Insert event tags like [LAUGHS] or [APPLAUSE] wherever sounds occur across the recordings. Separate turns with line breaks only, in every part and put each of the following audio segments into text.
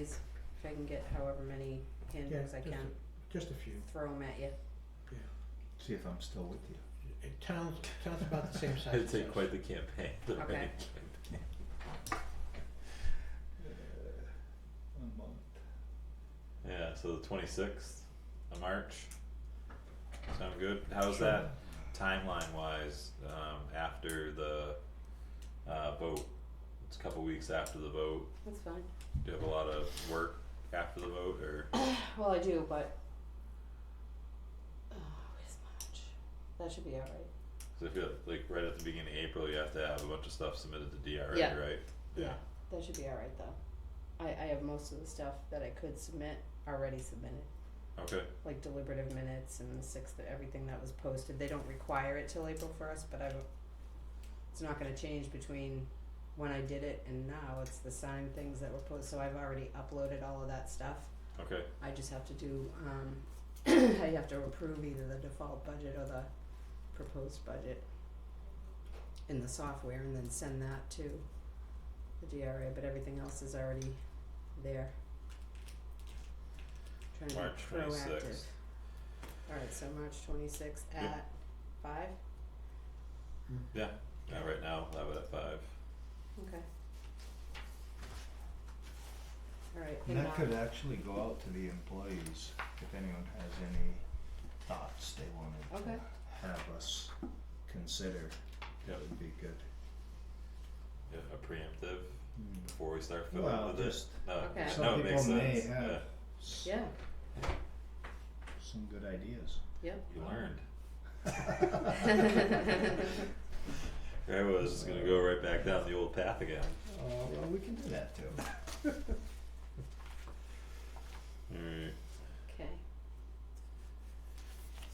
If I can get however many handbooks
Yeah,
I
just
can,
Just a few.
throw them at you.
See if I'm still with you.
It towns, towns about the
[LAUGHS]
same size.
I'd say
as us.
quite the campaign. [LAUGHS] the
Okay.
running campaign.
Uh, a month.
Yeah, so the twenty sixth of March. Sound good? How's
Sure.
that timeline wise, um, after the uh vote? It's a couple weeks after the vote.
That's fine.
Do you have a lot of work after the vote or
Well, I do, but. Oh, it's much. That should be alright.
cause I feel like right at the beginning of April, you have to have a bunch of stuff submitted to DRA, right?
Yeah. That should be alright though. I, I have most of the stuff that I could submit already submitted,
Okay,
like deliberative minutes and the sixth, everything that was posted. They don't require it till April first, but I've, it's not gonna change between when I did it and now. It's the same things that were posted, so I've already uploaded all of that stuff.
okay,
I just have to do, um, [CLEARS THROAT] I have to approve either the default budget or the proposed budget in the software and then send that to the DRA, but everything else is already there. Trying to be
March
proactive.
26th.
Alright, so March twenty-sixth
Yep.
at five,
yeah, right now, I'll have it at five.
okay. Alright,
And
and
that could
now,
actually go out to the employees if anyone has any thoughts they wanted
Okay.
to have us consider. That would be good.
Yeah, a preemptive
Hmm.
before we start filling
Well,
with it.
just-
No,
Okay.
yeah,
Some
no, it
people
makes
may
sense.
have-
Yeah,
S-
[LAUGHS]
yeah, [LAUGHS]
Some good ideas.
yep,
you learned.
Uh,
Right, well, I was just gonna go right back down the old path again.
Uh,
well, we can do that too.
Alright,
okay,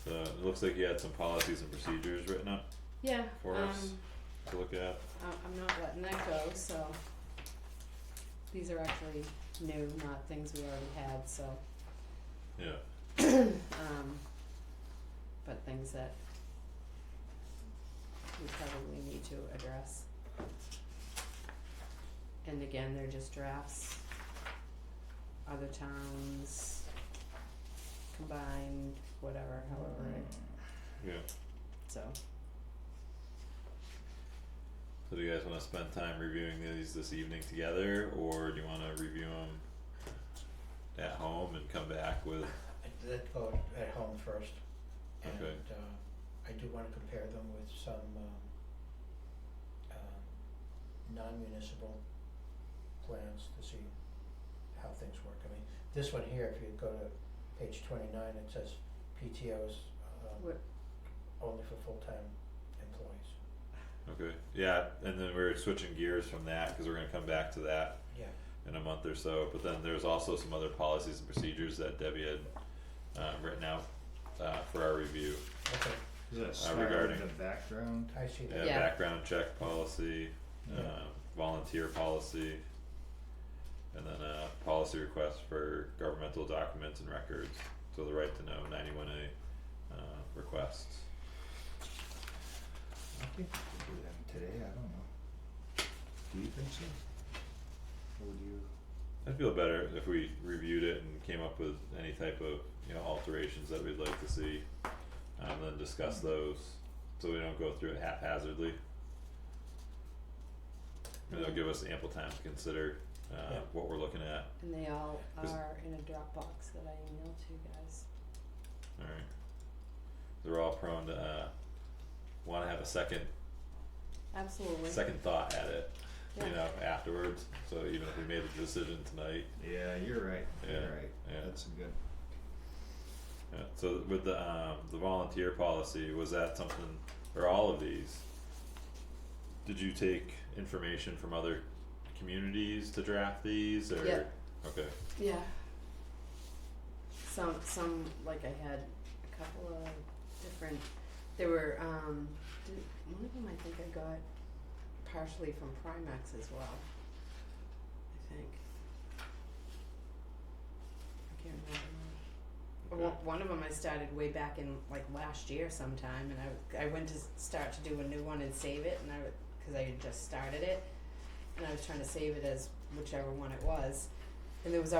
so it looks like you had some policies and procedures written up
yeah,
For us.
um,
to look at.
I I'm not letting that go, so. These are actually new, not things we already had, so, [CLEARS THROAT]
Yeah,
um, but things that we probably need to address. And again, they're just drafts. Other towns combined, whatever, however, it-
yeah.
so,
So do you guys wanna spend time reviewing these this evening together, or do you wanna review them at home and come back with,
I did go at home first. And
Okay.
uh I do wanna compare them with some um um non-municipal plans to see how things work. I mean, this one here, if you go to page twenty-nine, it says PTOs um
What-
only for full-time employees.
okay, yeah, and then we're switching gears from that, cause we're gonna come back to that
Yeah.
in a month or so, but then there's also some other policies and procedures that Debbie had uh written out uh for our review.
Okay,
Does that
Uh,
start
regarding-
with the background?
I see
Yeah,
that.
Yeah.
background check policy,
Yeah.
um, volunteer policy, and then a policy request for governmental documents and records, so the right to know ninety-one A, uh, requests.
I think we could do them today, I don't know. Do you think so? Or would you?
I'd feel better if we reviewed it and came up with any type of, you know, alterations that we'd like to see, um, then discuss those, so we don't go through it haphazardly. And it'll give us ample time to consider, uh,
Yeah.
what we're looking at,
and they all
Is-
are in a Dropbox that I emailed to you guys.
Alright. They're all prone to uh wanna have a second
Absolutely.
second thought at it, you
Yeah.
know, afterwards. So even if we made a decision tonight,
Yeah, you're right,
Yeah,
you're right.
yeah.
That's a good.
yeah. So with the um the volunteer policy, was that something or all of these? Did you take information from other communities to draft these or
Yeah.
okay.
Yeah. Some some like I had a couple of different there were um did, one of them I think I got partially from Primax as well. I think. I can't remember.
okay.
One, one of them I started way back in like last year sometime, and I I went to s- start to do a new one and save it, and I because I had just started it, and I was trying to save it as whichever one it was, and there was